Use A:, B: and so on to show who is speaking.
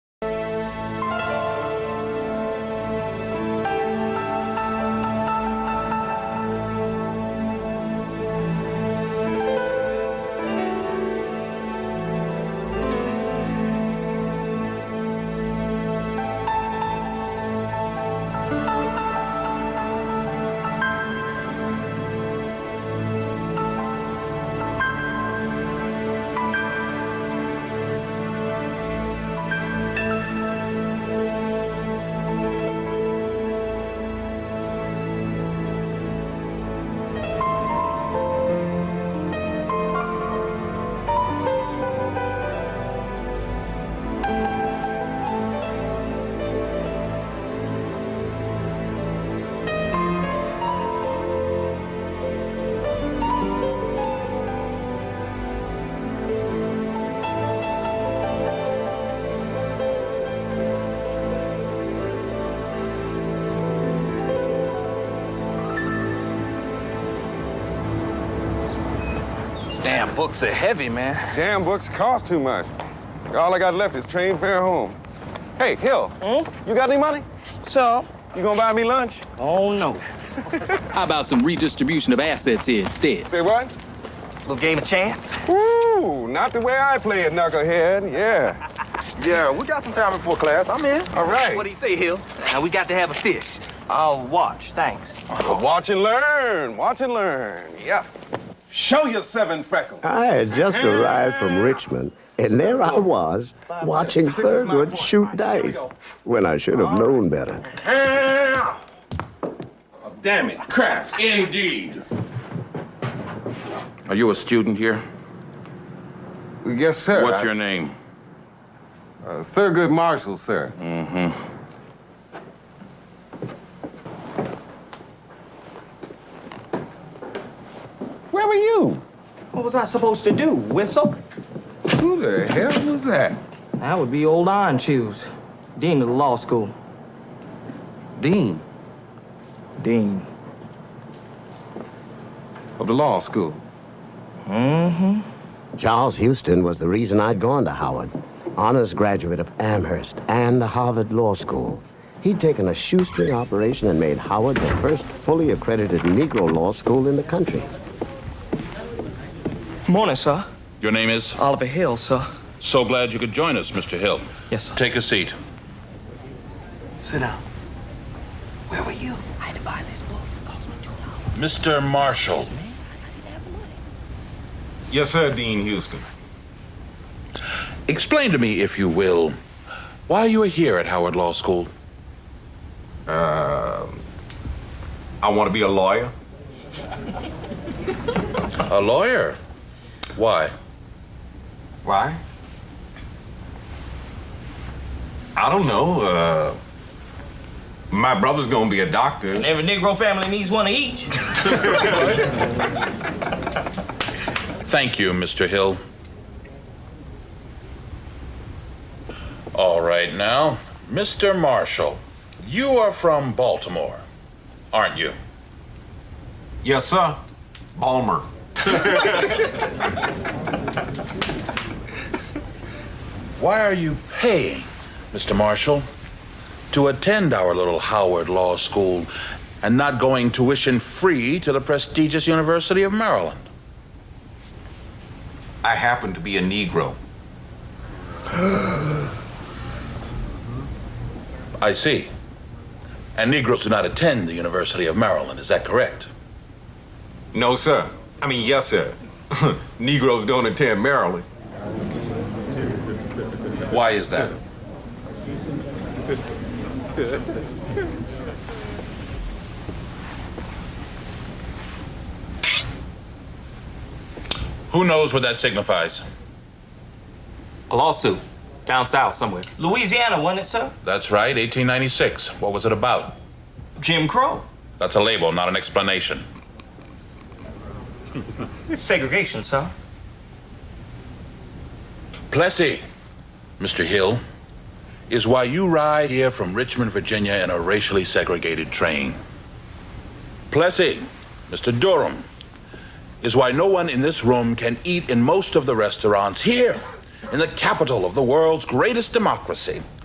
A: damn books are heavy, man.
B: Damn books cost too much. All I got left is train fare home. Hey, Hill, you got any money?
C: So,
B: You gonna buy me lunch?
C: oh no.
D: How about some redistribution of assets here instead?
B: Say what?
A: Little game of chance.
B: Ooh, not the way I play it, knucklehead. Yeah. Yeah, we got some time before class. I'm in. All right.
A: What do you say, Hill? Uh, we got to have a fish. I'll watch, thanks.
B: Watch and learn. Watch and learn. Yeah. Show your seven freckles.
E: I had just arrived from Richmond, and there I was watching
B: Six is my
E: Thurgood
B: point.
E: shoot dice when I should have known better.
B: Yeah. Oh, damn it. Crash. Indeed.
F: Are you a student here?
B: Yes, sir.
F: What's
B: I-
F: your name?
B: Uh, Thurgood Marshall, sir. Where were you?
C: What was I supposed to do? Whistle?
B: Who the hell was that?
C: That would be old Iron Shoes, Dean of the law school.
F: Dean
C: Dean.
B: Of the law school.
E: Charles Houston was the reason I'd gone to Howard, honors graduate of Amherst and the Harvard Law School. He'd taken a shoestring operation and made Howard the first fully accredited Negro law school in the country.
C: Morning, sir.
F: Your name is?
C: Oliver Hill, sir.
F: So glad you could join us, Mr. Hill.
C: Yes, sir.
F: Take a seat.
A: Sit down. Where were you? I had to buy this book. It cost me two dollars.
F: Mr. Marshall.
G: Yes, sir, Dean Houston.
F: Explain to me, if you will, why you are here at Howard Law School.
G: Uh, I want to be a lawyer.
F: A lawyer. Why?
G: Why? I don't know. Uh, my brother's gonna be a doctor.
C: Every Negro family needs one of each.
F: Thank you, Mr. Hill. All right, now, Mr. Marshall, you are from Baltimore, aren't you?
G: Yes, sir. Balmer.
F: Why are you paying, Mr. Marshall, to attend our little Howard Law School and not going tuition free to the prestigious University of Maryland?
G: I happen to be a Negro.
F: I see. And Negroes do not attend the University of Maryland, is that correct?
G: No, sir. I mean, yes, sir. Negroes don't attend Maryland.
F: Why is that? Who knows what that signifies?
H: A lawsuit. Down south somewhere.
C: Louisiana, wasn't it, sir?
F: That's right, 1896. What was it about?
C: Jim Crow.
F: That's a label, not an explanation.
C: Segregation, sir.
F: Plessy, Mr. Hill, is why you ride here from Richmond, Virginia in a racially segregated train. Plessy, Mr. Durham, is why no one in this room can eat in most of the restaurants here in the capital of the world's greatest democracy.